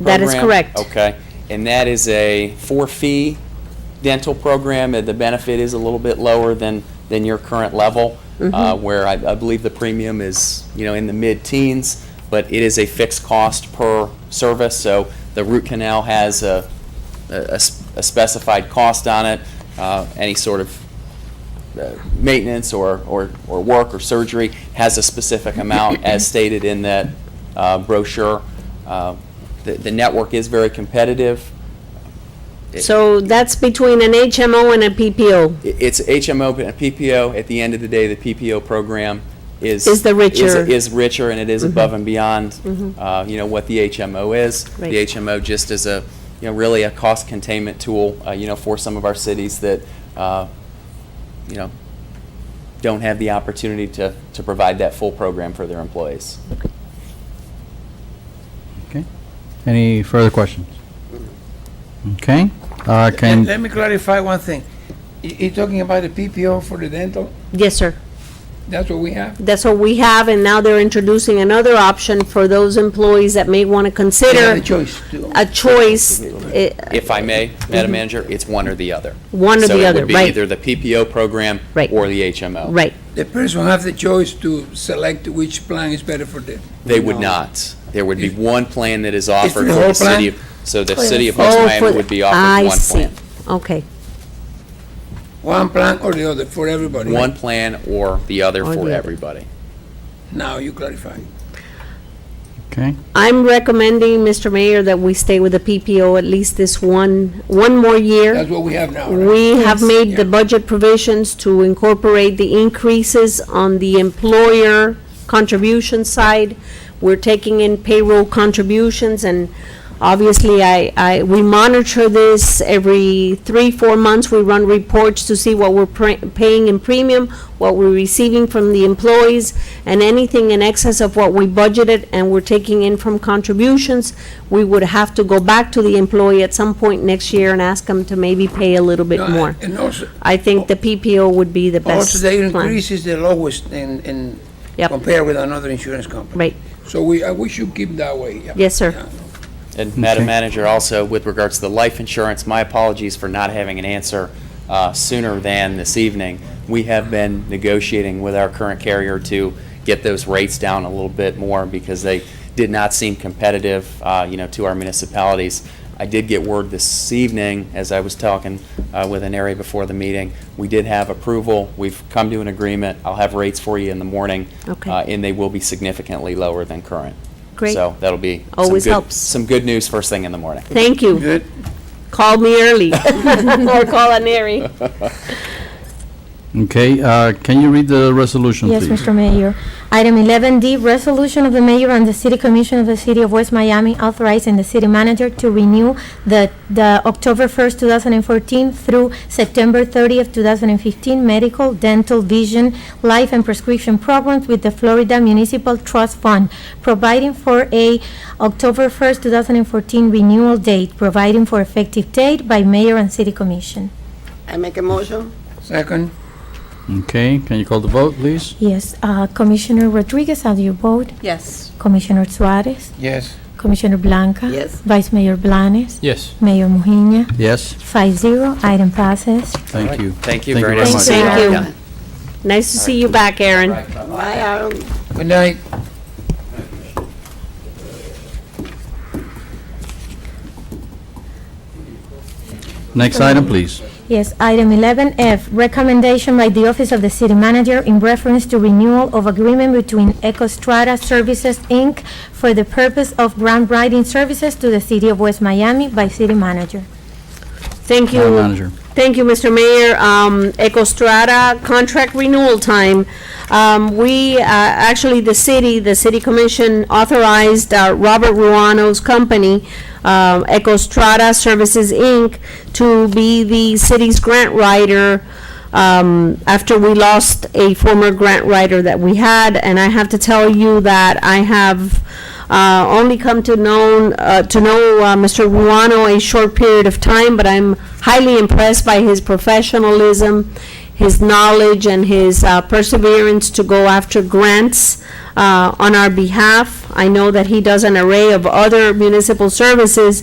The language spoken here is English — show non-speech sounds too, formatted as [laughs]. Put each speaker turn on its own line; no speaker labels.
That is
program?
correct.
Okay, and that is a for-fee dental program, and the benefit is a little bit lower than, than your current level,
Mm-hmm.
uh, where I, I believe the premium is, you know, in the mid-teens, but it is a fixed cost per service, so the root canal has a, a a s- a specified cost on it, uh, any sort of uh, maintenance or, or, or work or surgery has a specific amount as stated in that uh, brochure. Uh, The, the network is very competitive. It-
So that's between an HMO and a PPO.
it- It's HMO and PPO. At the end of the day, the PPO program is.
Is the richer. Mm-hmm.
Is richer and it is above and beyond, uh, you know, what the HMO is.
Right.
The HMO just is a, you know, really a cost containment tool, uh, you know, for some of our cities that, uh, you know, don't have the opportunity to, to provide that full program for their employees.
Okay. Any further questions? Okay. Uh,
Let-
Can,
Let me clarify one thing. You- You're talking about the PPO for the dental?
Yes, sir.
That's what we have?
That's what we have, and now they're introducing another option for those employees that may want to
We have
consider
a choice to.
a choice. eh,
If I may, Madam Manager, it's one or the other.
Mm-hmm. One or
So
the
it
other,
would be
right.
either the PPO program
Right.
or the HMO.
Right.
The person have the choice to select which plan is better for them.
They would not. There would be one plan that is
for
offered
the
for the
whole
city.
plan?
of- So the
Plan.
city of West
Oh, for
Miami
the-
would be
I
offered one
see.
plan.
Okay,
One plan or the other for everybody.
One plan or the other for
Or the other.
everybody.
Now you clarify.
okay,
I'm recommending, Mr. Mayor, that we stay with the PPO at least this one, one more year.
That's what we have now, right?
We have made the budget provisions to incorporate the increases on the employer contribution side. We're taking in payroll contributions, and obviously, I, I, we monitor this every three, four months. We run reports to see what we're pre- paying in premium, what we're receiving from the employees, and anything in excess of what we budgeted and we're taking in from contributions, we would have to go back to the employee at some point next year and ask them to maybe pay a little bit
No,
more.
And also,
I think the PPO would be the
also
best
the
plan.
increase is the lowest in, in,
Yep.
compared with another insurance company.
Right,
So we, uh, we should keep that way. yeah.
Yes, sir.
Yeah.
And Madam
Okay.
Manager, also with regards to the life insurance, my apologies for not having an answer uh, sooner than this evening. We have been negotiating with our current carrier to get those rates down a little bit more because they did not seem competitive, uh, you know, to our municipalities. I did get word this evening, as I was talking uh, with an area before the meeting, we did have approval. We've come to an agreement. I'll have rates for you in the morning.
Okay.
uh, And they will be significantly lower than current.
Great.
So that'll be. some
Always
good-
helps.
Some good news first thing in the morning.
thank you.
Good.
Call me
[laughs]
early, or call Aneri.
okay, uh, can you read the resolution,
Yes,
please?
Mr. Mayor. Item 11D, resolution of the mayor and the city commission of the city of West Miami authorizing the city manager to renew the, the October 1st, 2014 through September 30th, 2015 medical, dental, vision, life, and prescription programs with the Florida Municipal Trust Fund, providing for a October 1st, 2014 renewal date, providing for effective date by mayor and city commission.
I make a motion?
Second,
Okay, can you call the vote, please?
Yes, uh, Commissioner Rodriguez, how do you vote?
Yes.
Commissioner Suarez?
yes.
Commissioner Blanca?
Yes.
Vice Mayor Blanes?
Yes.
Mayor Mujina?
Yes,
Five zero, item passes.
thank you.
Thank you very much.
Thank you.
Thank
Aaron.
you. Nice to see you back, Aaron.
Why are
Good night.
Next item, please.
Yes, item 11F, recommendation by the Office of the City Manager in reference to renewal of agreement between EcoStrata Services, Inc. for the purpose of grant writing services to the City of West Miami by City Manager.
Thank you.
Madam Manager.
Thank you, Mr. Mayor. Um, EcoStrata contract renewal time. Um, we, uh, actually, the city, the city commission authorized, uh, Robert Ruano's company, um, EcoStrata Services, Inc., to be the city's grant writer, um, after we lost a former grant writer that we had. And I have to tell you that I have, uh, only come to known, uh, to know, uh, Mr. Ruano a short period of time, but I'm highly impressed by his professionalism, his knowledge, and his, uh, perseverance to go after grants, uh, on our behalf. I know that he does an array of other municipal services,